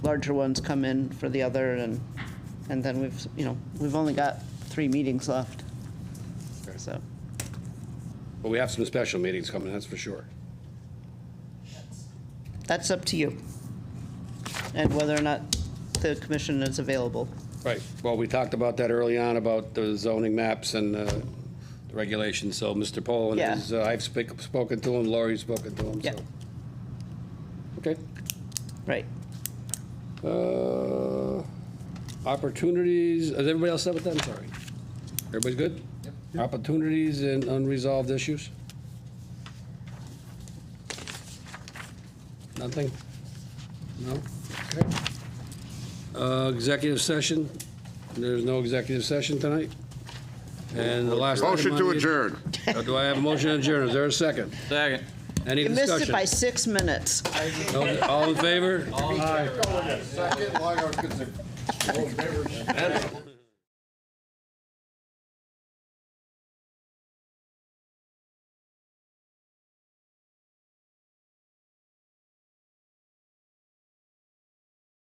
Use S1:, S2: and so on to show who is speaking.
S1: larger ones come in for the other, and, and then we've, you know, we've only got three meetings left. So,
S2: But we have some special meetings coming, that's for sure.
S1: that's up to you. And whether or not the commission is available.
S2: Right, well, we talked about that early on, about the zoning maps and uh, the regulations, so Mr. Poland
S1: Yeah.
S2: is, uh, I've speak- spoken to him, Lori's spoken to him,
S1: Yeah.
S2: so. Okay.
S1: Right.
S2: Uh, Opportunities, is everybody else set with that? I'm sorry. Everybody's good? Opportunities and unresolved issues? Nothing? No? Okay. Uh, Executive session? There's no executive session tonight? And the last. item
S3: Motion
S2: on
S3: to
S2: the-
S3: adjourn.
S2: Uh, Do I have a motion to adjourn? Is there a second?
S4: Second.
S2: Any
S1: You missed it by
S2: discussion?
S1: six minutes.
S2: No- All in favor?
S3: Second, like I was gonna say, all in favor?